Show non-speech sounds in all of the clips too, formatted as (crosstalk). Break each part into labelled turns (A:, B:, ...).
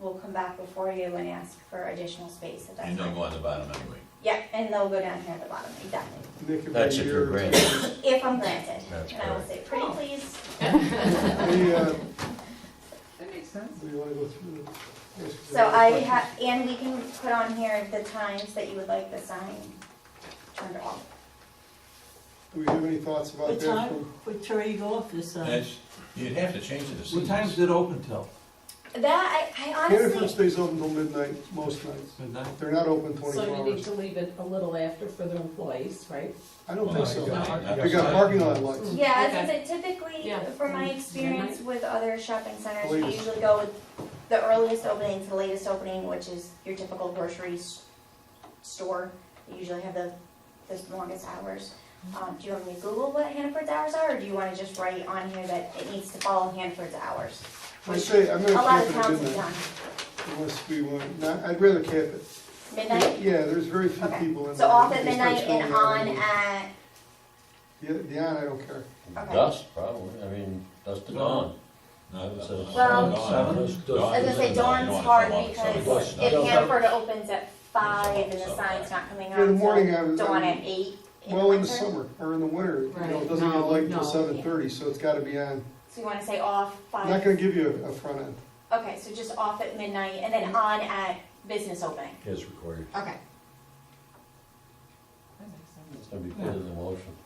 A: will come back before you and ask for additional space at that
B: And they'll
A: time.
B: go on the bottom anyway.
A: Yeah, and they'll go down here at the bottom, exactly.
C: They could be
B: That's if
C: a
B: you're
C: year or two.
B: granted.
A: If I'm granted,
B: That's
A: and I will
B: correct.
A: say, pretty please,
C: We, uh,
D: That makes sense.
C: we wanna go through the- yes,
A: So I
C: questions.
A: have, and we can put on here the times that you would like the sign turned off.
C: Do we have any thoughts about
E: What
C: that?
E: time would Terry go off this time?
B: That's, you'd have to change it to
F: What time's
B: seasons.
F: it open till?
A: That, I, I
C: Hannaford
A: honestly,
C: stays open till midnight, most nights.
F: Midnight?
C: They're not open
G: So
C: twenty-four
G: you need
C: hours.
G: to leave it a little after for the employees, right?
C: I don't
G: Oh
B: Well,
C: think so.
B: I- I-
C: They got parking lot lights.
A: yeah, I it typically,
G: Yeah.
A: from my experience with other shopping centers, we
C: Latest.
A: usually go with the earliest opening to the latest opening, which is your typical grocery s- store. They usually have the, the longest hours. Um, do you want me to Google what Hannaford's hours are, or do you wanna just write on here that it needs to follow Hannaford's hours?
C: I say, I'm
A: A
C: gonna
A: lot of
C: keep it at
A: towns have
C: midnight,
A: done,
C: unless we want, not, I'd rather cap it.
A: midnight?
C: Yeah, there's very few
A: Okay.
C: people in.
A: So off
C: there.
A: at
C: They start
A: midnight and
C: showing
A: on
C: up.
A: at,
C: The, the on, I don't care.
A: Okay.
H: Dusk, probably, I mean, dusk to dawn.
B: No, that's-
H: Well,
B: Dawn,
F: seven.
B: dawn,
A: I was gonna say
B: you don't
A: dawn's
B: want
A: hard
B: to show up,
A: because
B: so
A: if
B: it's not-
A: Hanford opens at five and the sign's not coming
C: In the
A: on
C: morning, I
A: till
C: was,
A: dawn at
C: I-
A: eight in the
C: well, in the
A: winter.
C: summer, or in the winter, you know, it
G: Right,
C: doesn't get
G: no,
C: light till
G: no.
C: seven thirty, so it's gotta be on.
A: So you wanna say off
C: I'm not gonna
A: five,
C: give you a, a front end.
A: okay, so just off at midnight and then on at business opening.
H: Is recorded.
A: Okay.
G: That makes sense.
H: It's gonna be put in the motion.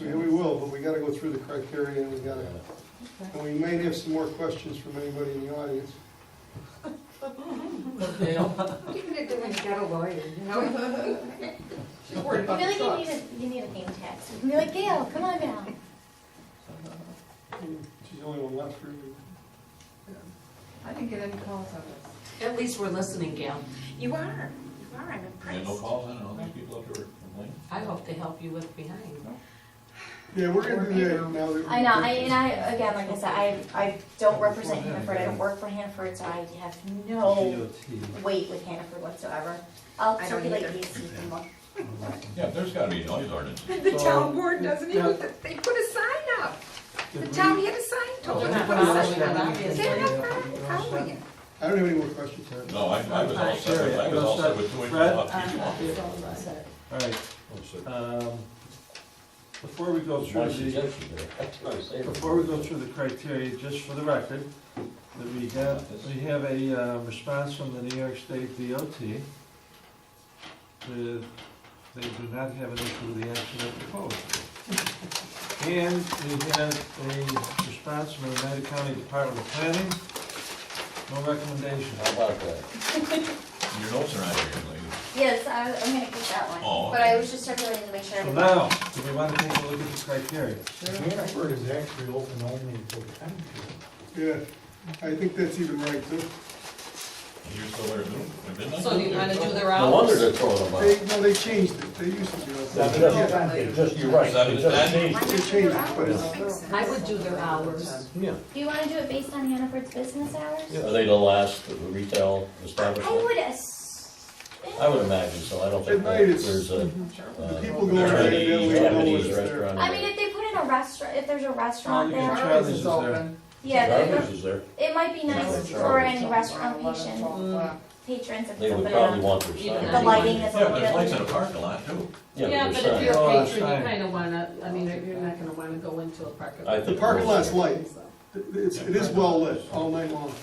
C: Yeah, we will, but we gotta go through the criteria and we gotta,
H: Yeah.
C: and we may have some more questions from anybody in the audience.
G: (laughs)
D: Even if they went to get a lawyer, you know? She's worried
A: I
D: about
A: feel
D: the
A: like you need
D: trucks.
A: a, you need a name tag. You can be like, Gail, come on down.
C: She's the only one left for you.
D: I didn't get any calls on this.
G: At least we're listening, Gail.
D: You are, you are, I'm
B: And
D: impressed.
B: no calls in, and all these people up there complaining.
G: I hope they help you with behind.
C: Yeah, we're gonna do that now that.
A: I know, I, and I, again, like I said, I, I don't represent Hanford, I don't work for Hanford, so I have no weight with Hanford whatsoever. I'll
D: I don't
A: circulate
D: either.
A: these so you can look.
B: Yeah, there's gotta be noise ordinance.
D: (laughs) The town board doesn't even, they put a sign up. The town had a sign, told them to put a sign up. They're not following it.
C: I don't have any more questions, Harry.
B: No, I, I was all set, with- I was all set with two inches
F: Fred?
B: off each wall.
F: All right,
H: Oh,
F: um, before we go through
H: Why should
F: the,
H: you do it? That's what I'm saying.
F: before we go through the criteria, just for the record, that we have, we have a uh, response from the New York State DOT. The- They do not have an issue with the action of the code. And we have a response from the United County Department of Planning. No recommendation.
H: How about that?
B: Your notes are not here, lady.
A: Yes, I, was- I'm gonna keep that one.
B: Oh,
A: But
B: okay.
A: I was just circulating to make sure.
F: So now, do we want to take a look at the criteria?
I: Hanford is actually open only until ten p.m.
C: Yeah, I think that's even right too.
B: You're still there at noon, at midnight?
D: So do you wanna do their
H: No wonder they're throwing them out.
C: They, no, they changed it, they used to do it.
H: That's just- it's just, you're right, it's just changed.
C: They changed it, but it's,
G: I would do their hours.
H: Yeah.
A: Do you wanna do it based on Hannaford's business hours?
H: Are they the last retail
A: I
H: establishment?
A: would ass-
H: I would imagine so, I don't think
C: At night, it's-
H: there's a.
C: the
H: uh,
C: people go there, they
H: Chinese-
C: don't know
H: Japanese
C: what's there.
H: restaurant
A: Mhm. I
H: or-
A: mean, if they put in a restaurant, if there's a restaurant
F: Oh, you can
A: there,
F: try-
D: Charlie's is open.
A: yeah,
H: Garbage
A: there-
H: is there,
A: it might be nice for any restaurant patient,
D: Eleven,
A: patrons if
H: they
A: they
H: would
A: put
H: probably
A: in a,
H: want their
G: Even
H: sign.
A: the lighting is a
B: Yeah,
A: little
B: but
A: bit.
B: there's lights in the parking lot too.
G: Yeah,
H: their
G: but
H: sign.
G: if you're
F: Oh,
G: a patron,
F: sign.
G: you kinda wanna, I mean, you're not gonna wanna go into a parking
H: I
G: lot.
H: think
C: The parking lot's
H: most-
C: light, it's, it is well lit all night long.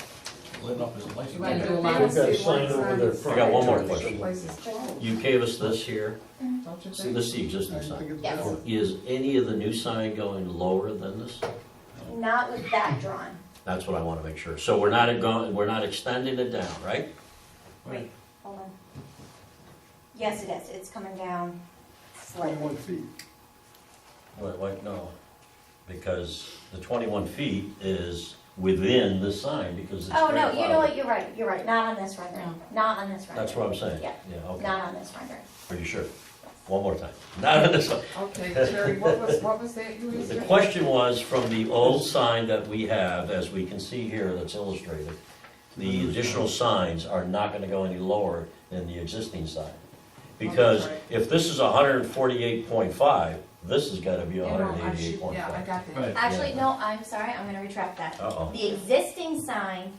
B: Lit up as a license.
G: You might do a
B: plate.
G: lot
D: We've
G: of.
D: got a
I: sign over there.
H: I got one more question.
D: Place is closed,
H: You gave us this here,
D: don't you
H: see,
D: think?
H: this is the
C: I
H: existing
C: think
H: sign.
C: it's
A: Yes.
C: valid.
H: Is any of the new sign going lower than this?
A: Not with that drawn.
H: That's what I wanna make sure. So we're not going, we're not extending it down, right?
A: Wait, hold on. Yes, it is, it's coming down slightly.
C: Twenty-one feet.
H: Wait, wait, no. Because the twenty-one feet is within the sign because it's.
A: Oh, no, you know
H: grandfathered.
A: what, you're right, you're right, not on this rendering, not on this rendering.
H: That's what I'm saying.
A: Yeah.
H: okay.
A: Not on this rendering.
H: Are you sure? One more time. Not on this one.
D: (laughs) Okay, Jerry, what was, what was that you
H: The
D: were saying?
H: question was from the old sign that we have, as we can see here that's illustrated, the additional signs are not gonna go any lower than the existing sign. Because if this is hundred and forty-eight point five, this has gotta be
D: You know, I
H: hundred and
D: should-
H: eighty-eight point
D: Yeah, I
H: five.
D: got that.
F: Right.
H: Oh.
A: Actually, no, I'm sorry, I'm gonna retract that.
H: Uh-oh.
A: The existing sign